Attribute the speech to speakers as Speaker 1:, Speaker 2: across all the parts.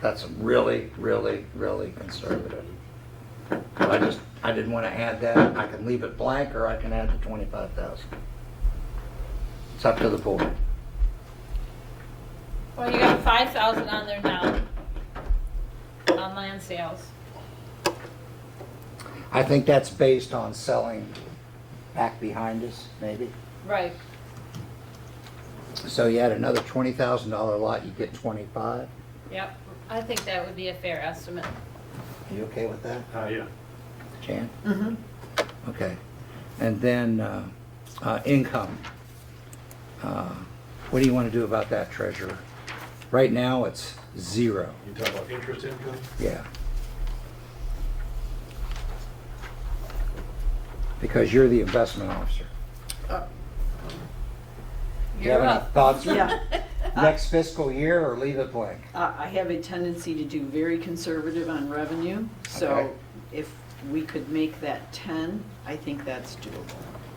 Speaker 1: That's really, really, really conservative. But I just, I didn't want to add that. I can leave it blank or I can add the 25,000. It's up to the board.
Speaker 2: Well, you got five thousand on there now. On land sales.
Speaker 1: I think that's based on selling back behind us, maybe.
Speaker 2: Right.
Speaker 1: So you add another $20,000 lot, you get 25.
Speaker 2: Yep. I think that would be a fair estimate.
Speaker 1: Are you okay with that,
Speaker 3: Uh, yeah.
Speaker 1: Jan?
Speaker 4: Mm-hmm.
Speaker 1: Okay. And then uh, uh, income. Uh, What do you want to do about that, treasurer? Right now, it's zero.
Speaker 3: You talk about interest income?
Speaker 1: Yeah. Because you're the investment officer. Do you
Speaker 2: You're
Speaker 1: have any
Speaker 2: up.
Speaker 1: thoughts?
Speaker 4: Yeah.
Speaker 1: Next fiscal year or leave it blank?
Speaker 4: Uh, I have a tendency to do very conservative on revenue,
Speaker 1: Okay.
Speaker 4: so if we could make that 10, I think that's doable.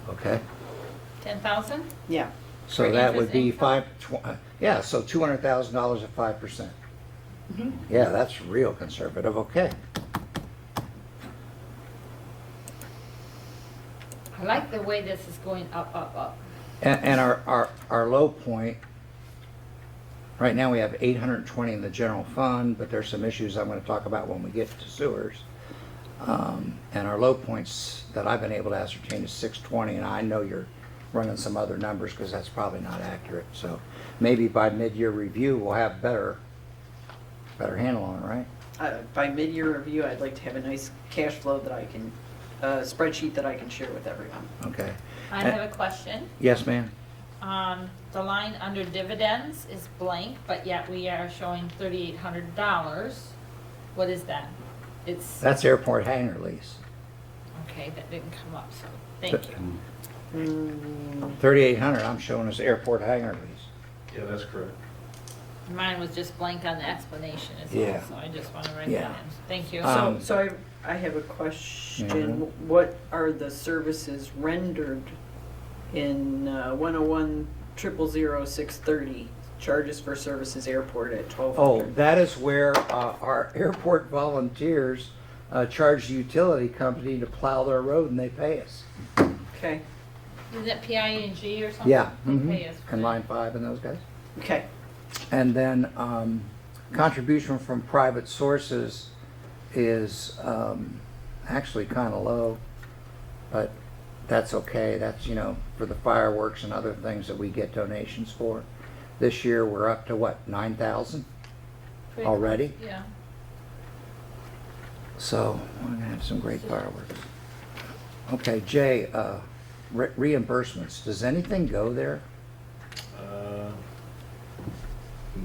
Speaker 1: Okay.
Speaker 2: Ten thousand?
Speaker 4: Yeah,
Speaker 1: So
Speaker 2: For
Speaker 1: that would
Speaker 2: interest
Speaker 1: be
Speaker 2: income?
Speaker 1: five, tw- uh, yeah, so $200,000 at 5%.
Speaker 2: Mm-hmm.
Speaker 1: Yeah, that's real conservative, okay.
Speaker 2: I like the way this is going up, up, up.
Speaker 1: And, and our, our, our low point, right now we have eight hundred and twenty in the general fund, but there's some issues I'm gonna talk about when we get to sewers. Um, and our low points that I've been able to ascertain is six twenty, and I know you're running some other numbers, cause that's probably not accurate, so maybe by mid-year review, we'll have better, better handle on it, right?
Speaker 4: Uh, by mid-year review, I'd like to have a nice cash flow that I can, uh, spreadsheet that I can share with everyone.
Speaker 1: Okay.
Speaker 2: I have a question.
Speaker 1: Yes, ma'am?
Speaker 2: Um, the line under dividends is blank, but yet we are showing thirty-eight hundred dollars. What is that? It's,
Speaker 1: That's airport hangar lease.
Speaker 2: okay, that didn't come up, so thank you.
Speaker 4: Mm,
Speaker 1: Thirty-eight hundred, I'm showing as airport hangar lease.
Speaker 3: Yeah, that's correct.
Speaker 2: Mine was just blank on the explanation as
Speaker 1: Yeah.
Speaker 2: well, so I just want to write that
Speaker 1: Yeah.
Speaker 2: in. Thank you.
Speaker 1: Um,
Speaker 4: So, so I, I have a question.
Speaker 1: Mhm.
Speaker 4: What are the services rendered in uh, 101 triple zero six thirty? Charges for services airport at 1200?
Speaker 1: Oh, that is where uh, our airport volunteers uh, charge the utility company to plow their road and they pay us.
Speaker 4: Okay,
Speaker 2: Is it PING or something?
Speaker 1: Yeah. mhm.
Speaker 2: Okay, yes.
Speaker 1: And Line 5 and those guys.
Speaker 4: okay.
Speaker 1: And then um, contribution from private sources is um, actually kind of low, but that's okay. That's, you know, for the fireworks and other things that we get donations for. This year, we're up to what, 9,000?
Speaker 2: Pretty-
Speaker 1: Already?
Speaker 2: Yeah.
Speaker 1: So we're gonna have some great fireworks. Okay, Jay, uh, re- reimbursements, does anything go there?
Speaker 3: Uh,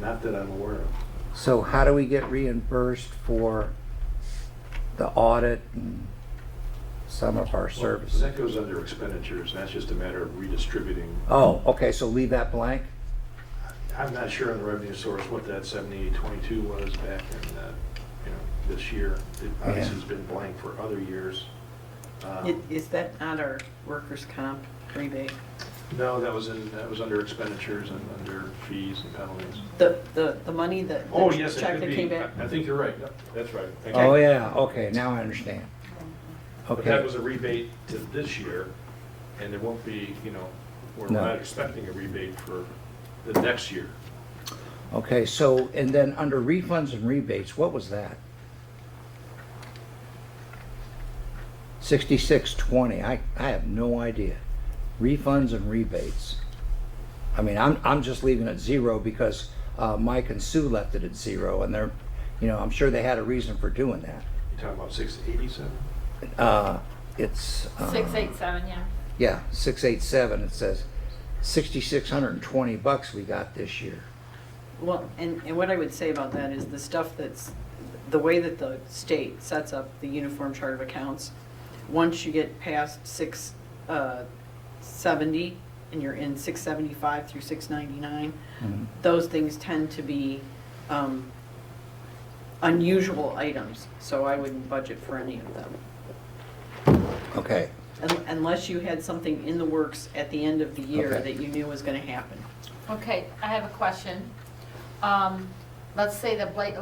Speaker 3: Not that I'm aware of.
Speaker 1: So how do we get reimbursed for the audit and some of our
Speaker 3: Well,
Speaker 1: services?
Speaker 3: That goes under expenditures, that's just a matter of redistributing.
Speaker 1: Oh, okay, so leave that blank?
Speaker 3: I'm not sure on the revenue source what that 7822 was back in, uh, you know, this year. It obviously has been blank for other years. Um,
Speaker 4: I- Is that not our workers' comp rebate?
Speaker 3: No, that was in, that was under expenditures and under fees and penalties.
Speaker 4: The, the, the money that,
Speaker 3: Oh, yes,
Speaker 4: the
Speaker 3: it
Speaker 4: check
Speaker 3: could
Speaker 4: that
Speaker 3: be.
Speaker 4: came back?
Speaker 3: I I think you're right, that's right. Thank you.
Speaker 1: Oh, yeah, okay, now I understand.
Speaker 3: But that
Speaker 1: Okay,
Speaker 3: was a rebate to this year, and it won't be, you know, we're
Speaker 1: No.
Speaker 3: not expecting a rebate for the next year.
Speaker 1: okay, so, and then under refunds and rebates, what was that? Sixty-six twenty, I, I have no idea. Refunds and rebates. I mean, I'm, I'm just leaving it zero because, uh, Mike and Sue left it at zero and they're, you know, I'm sure they had a reason for doing that.
Speaker 3: You're talking about six eighty-seven?
Speaker 1: Uh, it's. uh,
Speaker 2: Six, eight, seven, yeah.
Speaker 1: Yeah, six eight seven, it says sixty-six hundred and twenty bucks we got this year.
Speaker 4: Well, and, and what I would say about that is the stuff that's, the way that the state sets up the uniform chart of accounts, once you get past six, uh, seventy, and you're in six seventy-five through six ninety-nine,
Speaker 1: Mhm.
Speaker 4: those things tend to be, um, unusual items, so I wouldn't budget for any of them.
Speaker 1: Okay,
Speaker 4: Un- Unless you had something in the works at the end of the year
Speaker 1: Okay.
Speaker 4: that you knew was gonna happen.
Speaker 2: Okay, I have a question. Um, let's say the blight